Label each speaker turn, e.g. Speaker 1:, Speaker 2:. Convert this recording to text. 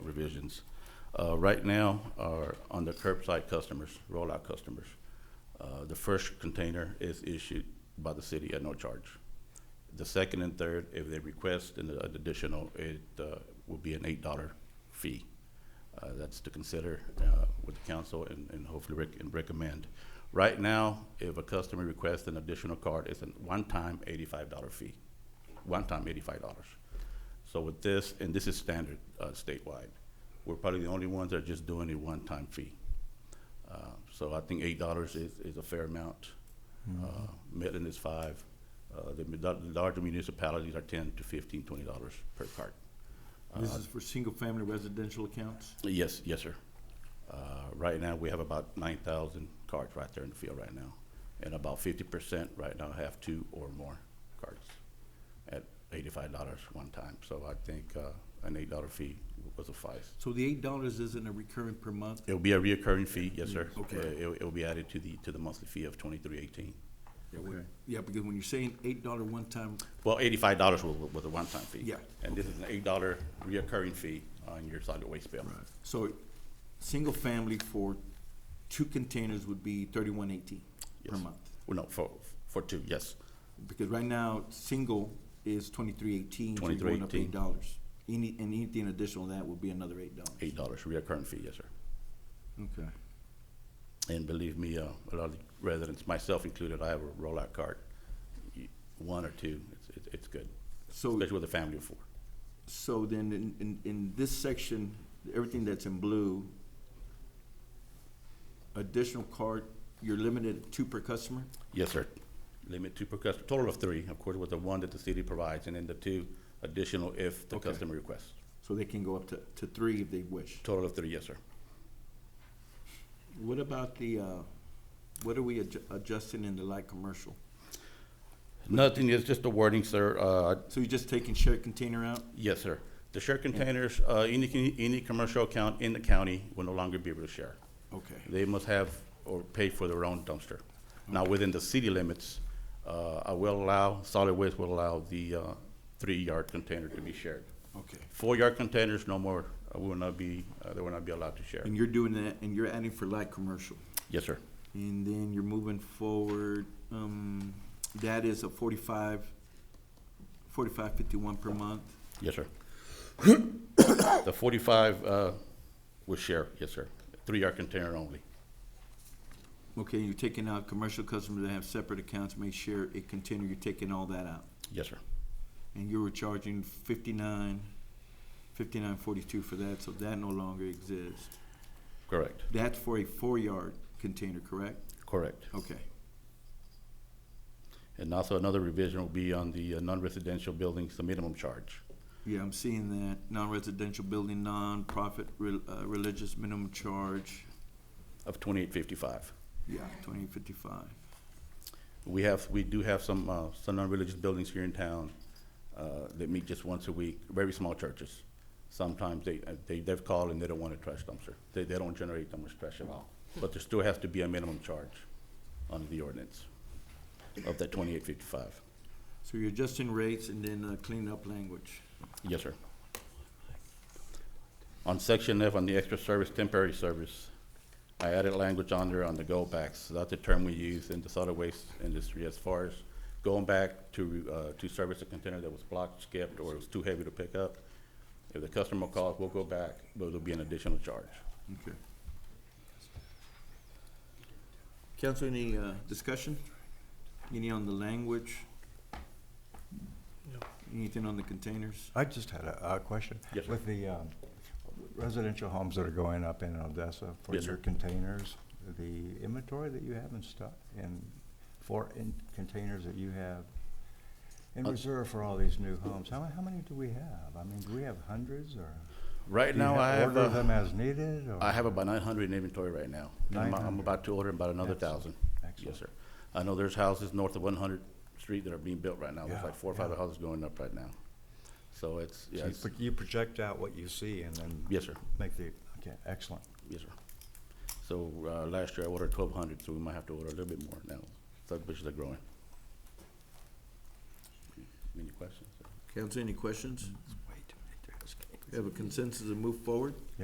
Speaker 1: provisions. Uh, right now are on the curbside customers, rollout customers. Uh, the first container is issued by the city at no charge. The second and third, if they request an additional, it, uh, will be an eight dollar fee. Uh, that's to consider, uh, with the council and, and hopefully rec- and recommend. Right now, if a customer requests an additional card, it's a one-time eighty-five dollar fee, one-time eighty-five dollars. So with this, and this is standard, uh, statewide, we're probably the only ones that are just doing a one-time fee. Uh, So I think eight dollars is, is a fair amount. Uh, Midland is five. Uh, The mi- the larger municipalities are ten to fifteen, twenty dollars per card.
Speaker 2: This is for single-family residential accounts?
Speaker 1: Yes, yes, sir. Uh, Right now, we have about nine thousand cards right there in the field right now. And about fifty percent right now have two or more cards at eighty-five dollars one time. So I think uh, an eight dollar fee was a five.
Speaker 2: So the eight dollars isn't a recurring per month?
Speaker 1: It'll be a reoccurring fee, yes, sir.
Speaker 2: Okay.
Speaker 1: Uh, It'll, it'll be added to the, to the monthly fee of twenty-three eighteen.
Speaker 2: Okay. Yeah, because when you're saying eight dollar one time,
Speaker 1: Well, eighty-five dollars was, was a one-time fee.
Speaker 2: Yeah.
Speaker 1: And this is an eight dollar reoccurring fee on your solid waste bill.
Speaker 2: so, single family for two containers would be thirty-one eighteen per
Speaker 1: Yes.
Speaker 2: month?
Speaker 1: Well, no, for, for two, yes.
Speaker 2: Because right now, single is twenty-three eighteen, so you're going up eight dollars. Any, and anything additional to that would be another eight dollars.
Speaker 1: Eight dollars reoccurring fee, yes, sir.
Speaker 2: Okay.
Speaker 1: And believe me, uh, a lot of the residents, myself included, I have a rollout card. You- One or two, it's, it's, it's good,
Speaker 2: So,
Speaker 1: especially with a family of four.
Speaker 2: so then in, in, in this section, everything that's in blue, additional card, you're limited to two per customer?
Speaker 1: Yes, sir. Limit two per customer, total of three, of course, with the one that the city provides, and then the two additional if the
Speaker 2: Okay.
Speaker 1: customer requests.
Speaker 2: So they can go up to, to three if they wish.
Speaker 1: Total of three, yes, sir.
Speaker 2: What about the, uh, what are we adju- adjusting in the light commercial?
Speaker 1: Nothing, it's just the wording, sir. Uh,
Speaker 2: So you're just taking shared container out?
Speaker 1: Yes, sir. The share containers, uh, any, con- any commercial account in the county will no longer be able to share.
Speaker 2: Okay,
Speaker 1: They must have or pay for their own dumpster. Now, within the city limits, uh, I will allow, solid waste will allow the uh, three-yard container to be shared.
Speaker 2: okay.
Speaker 1: Four-yard containers, no more, uh, will not be, uh, they will not be allowed to share.
Speaker 2: And you're doing that, and you're adding for light commercial?
Speaker 1: Yes, sir.
Speaker 2: And then you're moving forward, um, that is a forty-five, forty-five fifty-one per month.
Speaker 1: Yes, sir. The forty-five uh, will share, yes, sir. Three-yard container only.
Speaker 2: Okay, you're taking out commercial customers that have separate accounts, may share a container, you're taking all that out.
Speaker 1: Yes, sir.
Speaker 2: And you were charging fifty-nine, fifty-nine forty-two for that, so that no longer exists.
Speaker 1: Correct,
Speaker 2: That's for a four-yard container, correct?
Speaker 1: correct.
Speaker 2: Okay,
Speaker 1: And also another revision will be on the uh, non-residential buildings, the minimum charge.
Speaker 2: yeah, I'm seeing that, non-residential building, non-profit, rel- uh, religious minimum charge,
Speaker 1: of twenty-eight fifty-five.
Speaker 2: yeah, twenty fifty-five.
Speaker 1: We have, we do have some, uh, some non-religious buildings here in town, uh, that meet just once a week, very small churches. Sometimes they, uh, they, they've called and they don't want a trash dumpster. They, they don't generate that much trash at all. But there still has to be a minimum charge under the ordinance of that twenty-eight fifty-five.
Speaker 2: So you're adjusting rates and then uh, clean up language.
Speaker 1: Yes, sir. On section F, on the extra service, temporary service, I added language on there on the go backs. That's the term we use in the solid waste industry as far as going back to, uh, to service a container that was blocked, skipped, or was too heavy to pick up. If the customer calls, we'll go back, but it'll be an additional charge.
Speaker 2: Okay. Council, any uh, discussion? Any on the language? Anything on the containers?
Speaker 3: I just had a, a question.
Speaker 1: Yes, sir.
Speaker 3: With the um, residential homes that are going up in Odessa for
Speaker 1: Yes, sir.
Speaker 3: your containers, the inventory that you have in stock and for in containers that you have in
Speaker 1: Uh,
Speaker 3: reserve for all these new homes, how, how many do we have? I mean, do we have hundreds or?
Speaker 1: Right
Speaker 3: do you
Speaker 1: now,
Speaker 3: ha-
Speaker 1: I have,
Speaker 3: Order them
Speaker 1: uh,
Speaker 3: as needed or?
Speaker 1: I have about nine hundred in inventory right now. I'm, I'm
Speaker 3: 900.
Speaker 1: about to order about another thousand.
Speaker 3: Excellent.
Speaker 1: Yes,
Speaker 3: Excellent.
Speaker 1: sir. I know there's houses north of one hundred street that are being built right now. There's
Speaker 3: Yeah,
Speaker 1: like four or five
Speaker 3: yeah.
Speaker 1: houses going up right now. So it's,
Speaker 3: So
Speaker 1: yeah,
Speaker 3: you
Speaker 1: it's-
Speaker 3: pro- You project out what you see and then
Speaker 1: yes, sir,
Speaker 3: make the, okay, excellent.
Speaker 1: yes, sir. So, uh, last year I ordered twelve hundred, so we might have to order a little bit more now. Thug bushes are growing. Any questions?
Speaker 2: Council, any questions? We have a consensus to move forward?